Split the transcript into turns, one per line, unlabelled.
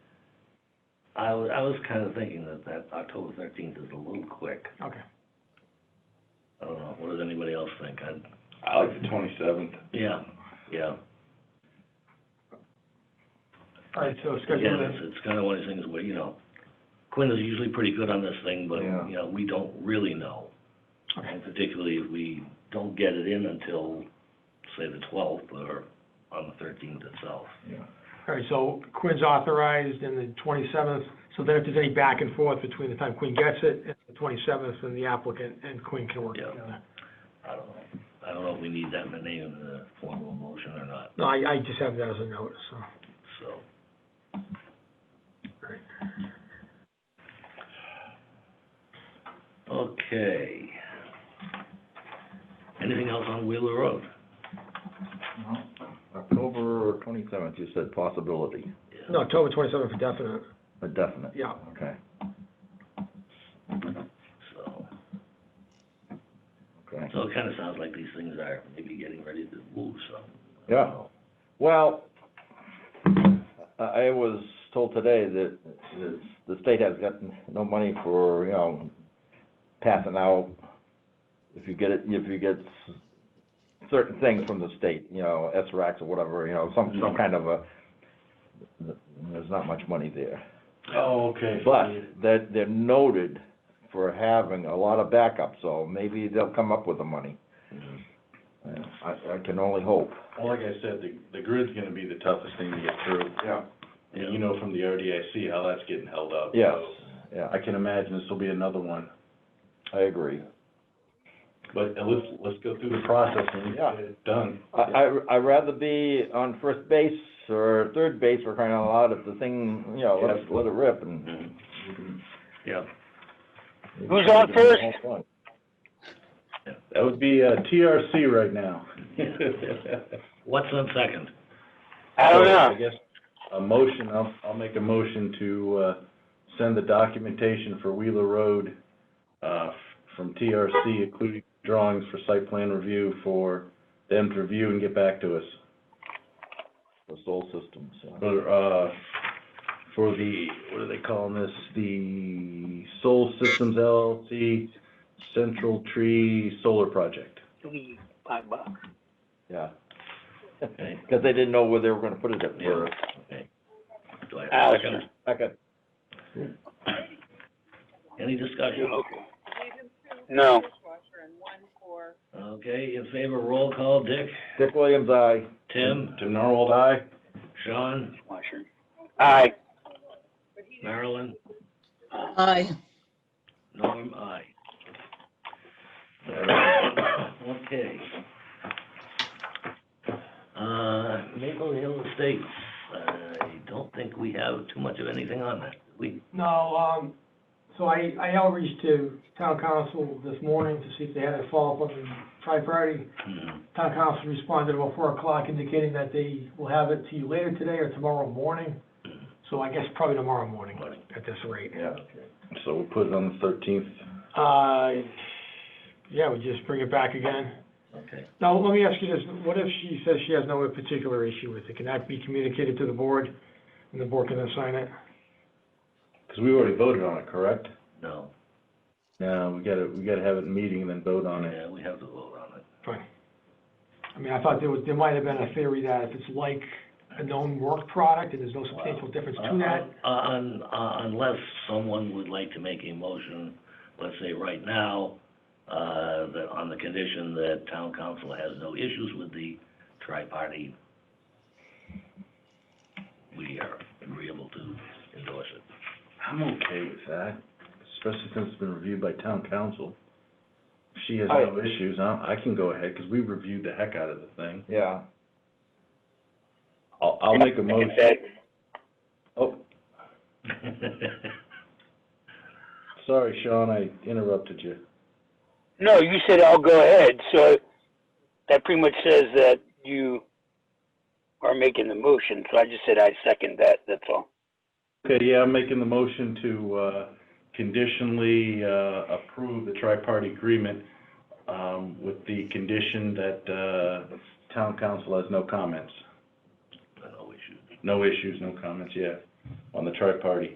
I was, I was kind of thinking that that October thirteenth is a little quick.
Okay.
I don't know, what does anybody else think? I'd,
I like the twenty-seventh.
yeah, yeah.
All right, so schedule
Again, it's,
that,
it's kind of one of these things where, you know, Quinn is usually pretty good on this thing, but,
Yeah.
you know, we don't really know.
okay,
And particularly if we don't get it in until, say, the twelfth or on the thirteenth itself.
Yeah.
all right, so Quinn's authorized in the twenty-seventh, so then if there's any back and forth between the time Quinn gets it and the twenty-seventh, then the applicant and Quinn can work
Yeah.
together.
I don't know. I don't know if we need that in the name of the formal motion or not,
No, I, I just have that as a note, so.
so. Okay. Anything else on Wheeler Road?
October twenty-seventh, you said possibility,
Yeah.
No, October twenty-seventh for definite,
a definite,
yeah.
okay,
So,
okay.
so it kinda sounds like these things are maybe getting ready to move, so.
Yeah. Well, I, I was told today that, that the state has gotten no money for, you know, passing out, if you get it, if you get s- certain things from the state, you know, S-RACs or whatever, you know, some, some kind of a, there's not much money there.
Oh, okay.
But they're, they're noted for having a lot of backup, so maybe they'll come up with the money. I, I can only hope.
Well, like I said, the, the grid's gonna be the toughest thing to get through.
Yeah.
And you know from the RDIC how that's getting held up.
Yes,
so
yeah,
I can imagine this will be another one,
I agree.
but uh, let's, let's go through the process and
Yeah.
get it done.
I, I, I'd rather be on first base or third base for crying out loud if the thing, you know, let it, let it rip and.
Mhm. Yeah,
Who's on first?
That would be, uh, TRC right now.
what's on second?
I don't
So,
know.
I guess a motion, I'll, I'll make a motion to, uh, send the documentation for Wheeler Road, uh, f- from TRC, including drawings for site plan review for them to review and get back to us.
The soul systems, yeah.
For, uh, for the, what are they calling this? The Soul Systems LLC Central Tree Solar Project.
We- five bucks.
yeah.
Okay.
Cause they didn't know where they were gonna put it at
Yeah,
first.
okay. Do I have a
Allison,
second?
Second,
Any discussion?
okay. No,
Okay, in favor, roll call, Dick,
Dick Williams, aye.
Tim,
Tim Norold, aye?
Sean,
Washington. Aye,
Marilyn,
Aye.
Norm, I. Okay. Uh, Maple Hill Estates, I don't think we have too much of anything on that. We,
No, um, so I, I outreached to town council this morning to see if they had a follow-up on the tri-party.
hmm,
Mm-hmm.
Town council responded about four o'clock indicating that they will have it to you later today or tomorrow morning. So I guess probably tomorrow morning
Morning.
at this rate.
Yeah. So we'll put it on the thirteenth.
Uh, yeah, we just bring it back again.
okay.
Now, let me ask you this, what if she says she has no particular issue with it? Can that be communicated to the board and the board can then sign it?
Cause we already voted on it, correct?
No,
No, we gotta, we gotta have it in meeting and then vote on it.
yeah, we have to vote on it.
Fine. I mean, I thought there was, there might have been a theory that if it's like a known work product and there's no substantial difference to that,
Uh, un- uh, unless someone would like to make a motion, let's say right now, uh, that on the condition that town council has no issues with the tri-party, we are agreeable to endorse it.
I'm okay with that, especially since it's been reviewed by town council. If she has
I-
no issues, I, I can go ahead, cause we reviewed the heck out of the thing.
Yeah,
I'll, I'll make a
like
motion.
I said,
Oh, sorry, Sean, I interrupted you.
no, you said I'll go ahead, so that pretty much says that you are making the motion, so I just said I second that, that's all.
Okay, yeah, I'm making the motion to, uh, conditionally, uh, approve the tri-party agreement, um, with the condition that, uh, town council has no comments.
No issues.
No issues, no comments, yeah, on the tri-party.